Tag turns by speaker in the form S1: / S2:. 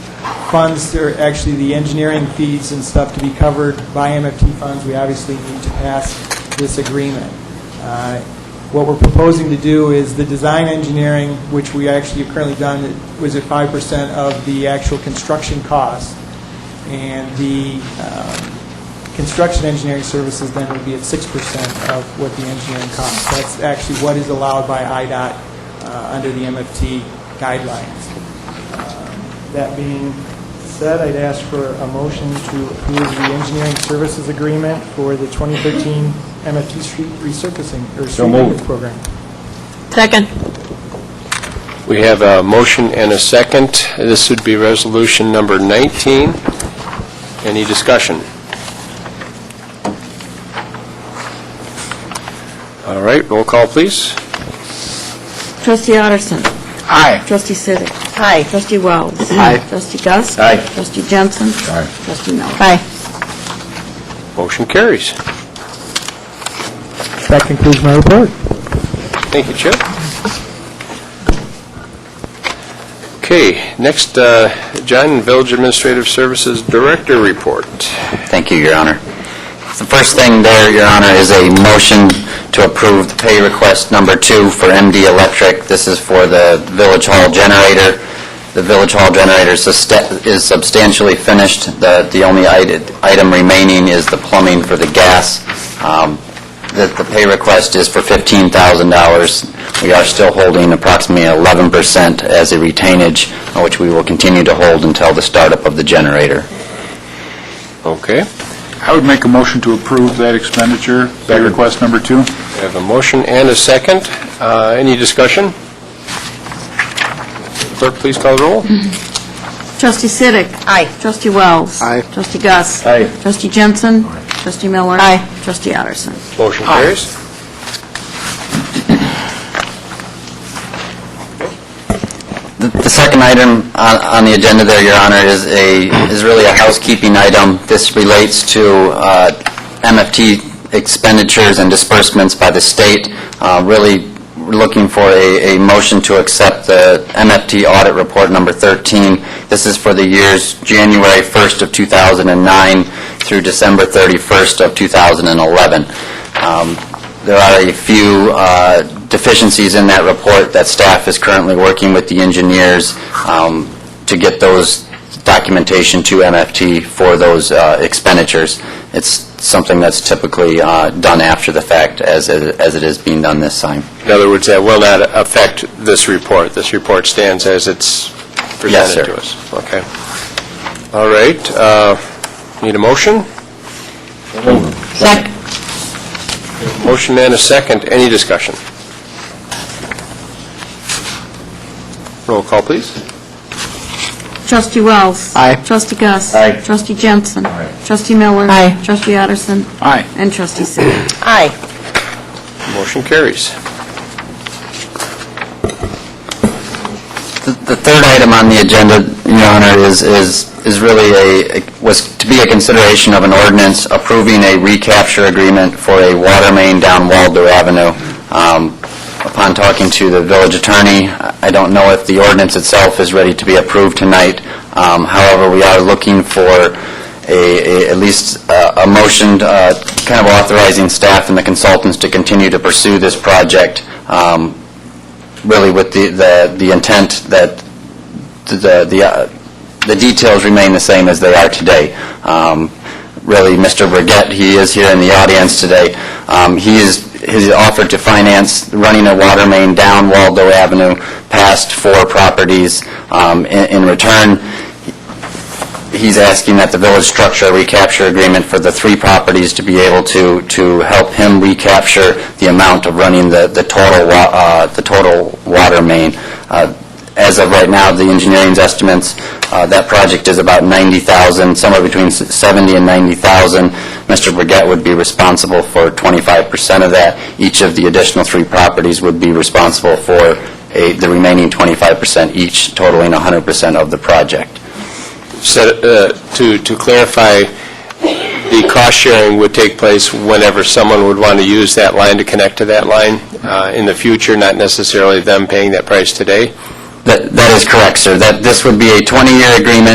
S1: funds, or actually the engineering fees and stuff to be covered by MFT funds, we obviously need to pass this agreement. Uh, What we're proposing to do is the design engineering, which we actually have currently done, was at 5% of the actual construction cost, and the um, construction engineering services then would be at 6% of what the engineering costs. That's actually what is allowed by IDOT uh, under the MFT guidelines. That being said, I'd ask for a motion to approve the engineering services agreement for the 2013 MFT Street resurfacing, or street
S2: moved.
S1: improvement program.
S3: Second.
S2: We have a motion and a second. This would be resolution number 19. Any discussion? All right, roll call, please.
S4: Trustee Otterston.
S2: Aye.
S4: Trustee Sidik. Aye. Trustee Wells.
S2: Aye.
S4: Trustee Gus.
S2: Aye.
S4: Trustee Jensen.
S2: Aye.
S4: Trustee Miller.
S2: Motion carries.
S1: That concludes my report.
S2: Thank you, Chip. Okay, next, uh, John, Village Administrative Services Director Report.
S5: Thank you, Your Honor. The first thing there, Your Honor, is a motion to approve the pay request number two for MD Electric. This is for the Village Hall generator. The Village Hall generator suste- is substantially finished. The the only ite- item remaining is the plumbing for the gas. Um, The the pay request is for $15,000. We are still holding approximately 11% as a retainage, uh, which we will continue to hold until the startup of the generator.
S2: Okay,
S6: I would make a motion to approve that expenditure, pay
S2: Second.
S6: request number two.
S2: we have a motion and a second. Uh, Any discussion? Clerk, please call the roll.
S4: Trustee Sidik. Aye. Trustee Wells.
S2: Aye.
S4: Trustee Gus.
S2: Aye.
S4: Trustee Jensen. Trustee Miller. Aye. Trustee Otterston.
S2: Motion carries.
S5: The the second item on on the agenda there, Your Honor, is a, is really a housekeeping item. This relates to uh, MFT expenditures and disbursements by the state. Uh, Really looking for a a motion to accept the MFT audit report number 13. This is for the years January 1st of 2009 through December 31st of 2011. Um, there are a few uh, deficiencies in that report that staff is currently working with the engineers um, to get those documentation to MFT for those uh, expenditures. It's something that's typically uh, done after the fact, as as it is being done this time.
S2: In other words, that will not affect this report. This report stands as it's
S5: Yes,
S2: presented
S5: sir.
S2: to us. Okay. All right, uh, need a motion?
S3: Second.
S2: Motion and a second. Any discussion? Roll call, please.
S4: Trustee Wells.
S2: Aye.
S4: Trustee Gus.
S2: Aye.
S4: Trustee Jensen. Trustee Miller.
S3: Aye.
S4: Trustee Otterston.
S6: Aye.
S4: And Trustee Sidik.
S2: Motion carries.
S5: The the third item on the agenda, Your Honor, is, is is really a, was to be a consideration of an ordinance approving a recapture agreement for a water main down Waldo Avenue. Um, Upon talking to the village attorney, I I don't know if the ordinance itself is ready to be approved tonight. Um, However, we are looking for a, a- at least uh, a motion, uh, kind of authorizing staff and the consultants to continue to pursue this project um, really with the, the the intent that the, the, uh, the details remain the same as they are today. Um, Really, Mr. Burgett, he is here in the audience today, um, he is, has offered to finance running a water main down Waldo Avenue past four properties. Um, In in return, he's asking that the village structure a recapture agreement for the three properties to be able to, to help him recapture the amount of running the, the total, wa- uh, the total water main. Uh, As of right now, the engineering's estimates, uh, that project is about 90,000, somewhere between s- 70 and 90,000. Mr. Brigette would be responsible for 25% of that. Each of the additional three properties would be responsible for a- the remaining 25% each, totaling 100% of the project.
S2: Set- uh, To to clarify, the cost sharing would take place whenever someone would want to use that line to connect to that line uh, in the future, not necessarily them paying that price today?
S5: That, that is correct, sir. That, this would be a 20-year agreement